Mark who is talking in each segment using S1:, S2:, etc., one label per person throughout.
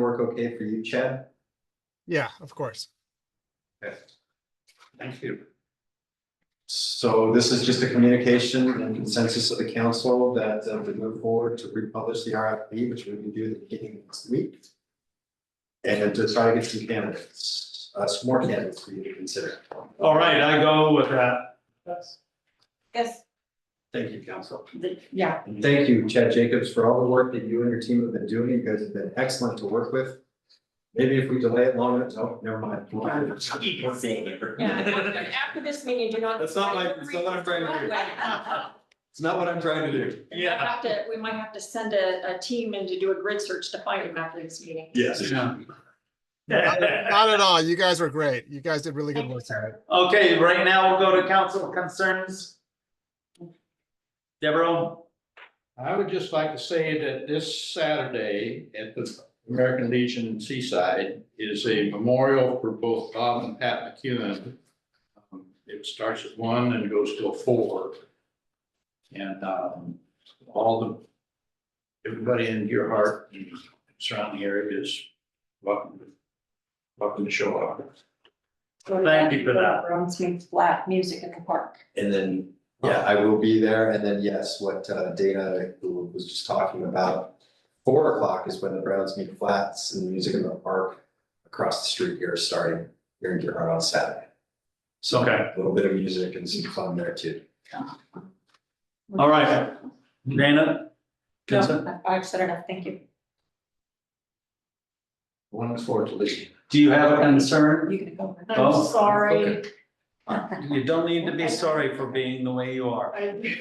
S1: work okay for you, Chad?
S2: Yeah, of course.
S1: Okay. Thank you. So this is just a communication and consensus of the council that uh, we move forward to republish the RFP, which we can do the beginning of next week. And to try to get some candidates, uh, some more candidates for you to consider.
S3: All right, I go with that.
S4: Yes,
S1: Thank you, council.
S4: the- yeah,
S1: And Thank you, Chad Jacobs, for all the work that you and your team have been doing. You guys have been excellent to work with. Maybe if we delay it long enough, oh, never mind.
S4: yeah. After after this meeting, do not.
S1: That's not my- that's not what I'm trying to do. It's not what I'm trying to do.
S4: We might have to, we might have to send a, a team in to do a grid search to find him after this meeting.
S1: Yes.
S2: Not not at all. You guys were great. You guys did really good
S4: Thank you,
S2: work.
S4: sir.
S3: Okay, right now we'll go to council concerns. Deborah,
S5: I would just like to say that this Saturday at the American Legion in Seaside is a memorial for both Bob and Pat McEwen. Um, It starts at one and goes till four. And um, all the, everybody in your heart and surrounding area is welcome, to- welcome to show up.
S3: Thank you for that.
S4: Rounds means flat music in the park.
S1: And then, yeah, I will be there. And then, yes, what uh, Dana was just talking about. Four o'clock is when the Browns meet flats and the music in the park across the street here starting here in Gerhard on Saturday. So
S3: Okay.
S1: a little bit of music and some fun there too.
S3: all right. Dana? consent?
S4: No, I- I've said enough, thank you.
S5: One is for the Legion.
S3: Do you have a concern?
S4: You can go.
S3: Oh,
S4: I'm sorry.
S3: You don't need to be sorry for being the way you are.
S6: I,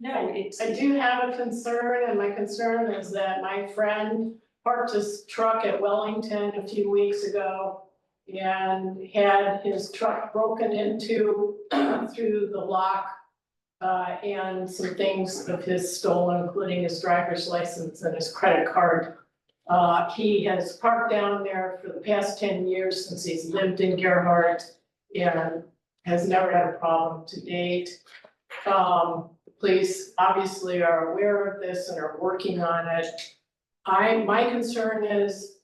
S4: No, it's.
S6: I do have a concern, and my concern is that my friend parked his truck at Wellington a few weeks ago and had his truck broken into through the lock, uh, and some things of his stolen, including his driver's license and his credit card. Uh, he has parked down there for the past ten years since he's lived in Gerhart and has never had a problem to date. Um, the police obviously are aware of this and are working on it. I, my concern is,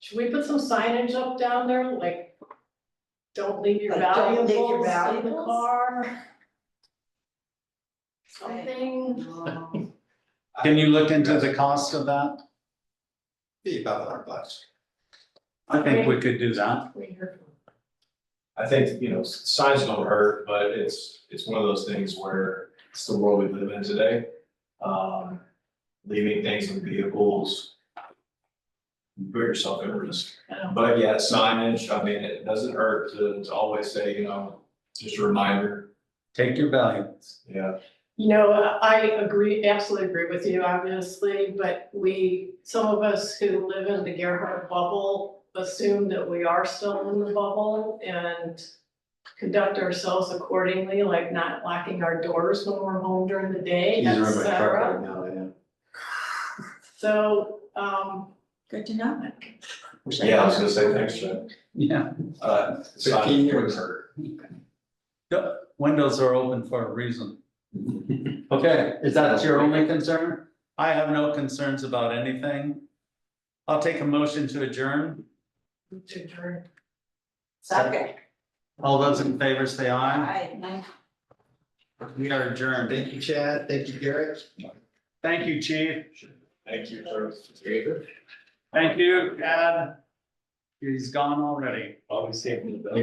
S6: should we put some signage up down there, like, don't leave your
S4: Like, don't leave your
S6: valuables in the
S4: valuables?
S6: car? Something,
S4: No.
S3: Can you look into the cost of that?
S1: Be about our class.
S3: I think we could do that.
S6: we heard from
S7: I think, you know, s- signs don't hurt, but it's, it's one of those things where it's the world we live in today. Um, leaving things in vehicles. you Put yourself at risk, but yeah, signage, I mean, it doesn't hurt to, to always say, you know, just a reminder,
S3: Take your values.
S7: yeah.
S6: You know, I agree, absolutely agree with you, obviously, but we, some of us who live in the Gerhard bubble assume that we are still in the bubble and conduct ourselves accordingly, like not locking our doors when we're home during the day,
S1: He's
S6: et
S1: around my
S7: uh,
S1: truck
S6: cetera.
S1: right now, yeah.
S6: So, um,
S4: Good to know.
S7: Yeah, I was gonna say, thanks, Jim.
S3: Yeah,
S7: Uh,
S1: Fifteen
S7: signage
S1: years.
S7: wouldn't hurt.
S3: windows are open for a reason. Okay, is that your only concern? I have no concerns about anything. I'll take a motion to adjourn.
S6: to turn,
S4: Second.
S3: All those in favor say aye.
S4: Hi, nice.
S3: We are adjourned.
S1: Thank you, Chad. Thank you, Garrett.
S3: Thank you, chief.
S7: Thank you, sir.
S3: Thank you, Ed. He's gone already.
S7: Always saving the best.